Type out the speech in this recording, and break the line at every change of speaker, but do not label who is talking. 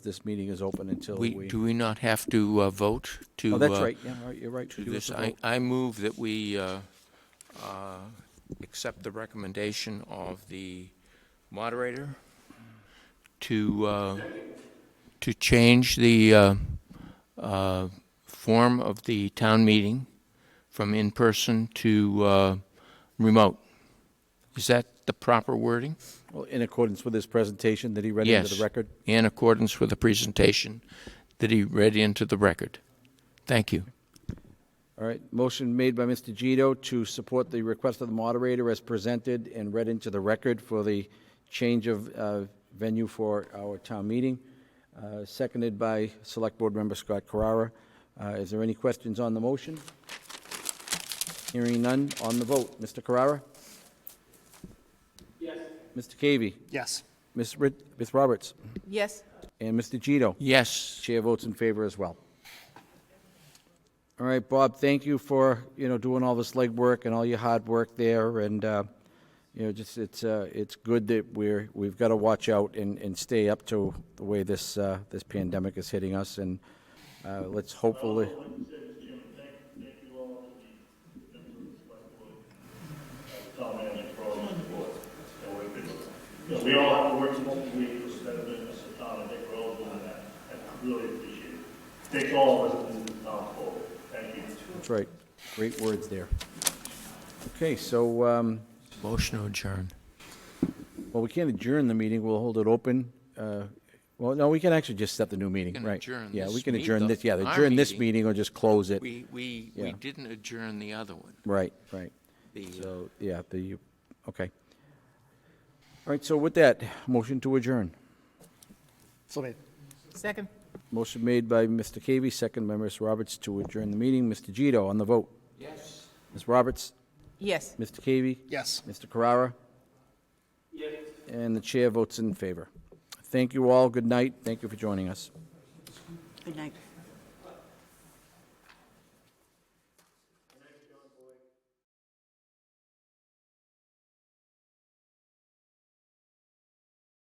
This meeting is open until
We,
we,
do we not have to uh, vote to?
oh, that's
uh,
right, yeah, all right, you're right.
to
You
this?
have to
I,
vote.
I move that we uh, uh, accept the recommendation of the moderator to, uh, to change the uh, uh, form of the town meeting from in-person to uh, remote. Is that the proper wording?
Well, in accordance with his presentation that he read into
Yes.
the record.
in accordance with the presentation that he read into the record. Thank you.
All right, motion made by Mr. Gito to support the request of the moderator as presented and read into the record for the change of uh, venue for our town meeting, uh, seconded by Select Board Member Scott Carrara. Uh, Is there any questions on the motion? Hearing none, on the vote, Mr. Carrara? Yes. Mr. Cavey?
Yes.
Ms. Rit- Ms. Roberts?
Yes.
And Mr. Gito?
Yes,
Chair votes in favor as well. All right, Bob, thank you for, you know, doing all this legwork and all your hard work there, and, uh, you know, just, it's, uh, it's good that we're, we've got to watch out and, and stay up to the way this, uh, this pandemic is hitting us, and uh, let's hopefully,
Yeah, we all have to work multiple weeks, instead of being a town, and Dick Rose on that, and I really appreciate it. Takes all of us to move the town forward, thank you.
that's right, great words there. Okay, so, um,
motion to adjourn.
well, we can't adjourn the meeting, we'll hold it open. uh, Well, no, we can actually just set the new meeting,
can
right?
adjourn
Yeah, we
this
can
meet-
adjourn
the-
this, yeah,
our
adjourn this
meeting.
meeting or just close it.
We, we, we
Yeah.
didn't adjourn the other one.
Right, right.
The, uh,
So, yeah, the, okay. All right, so with that, motion to adjourn.
So made.
Second.
Motion made by Mr. Cavey, second by Ms. Roberts to adjourn the meeting. Mr. Gito on the vote.
Yes.
Ms. Roberts,
Yes.
Mr. Cavey,
Yes.
Mr. Carrara. Yes. And the chair votes in favor. Thank you all. Good night. Thank you for joining us.
Good night.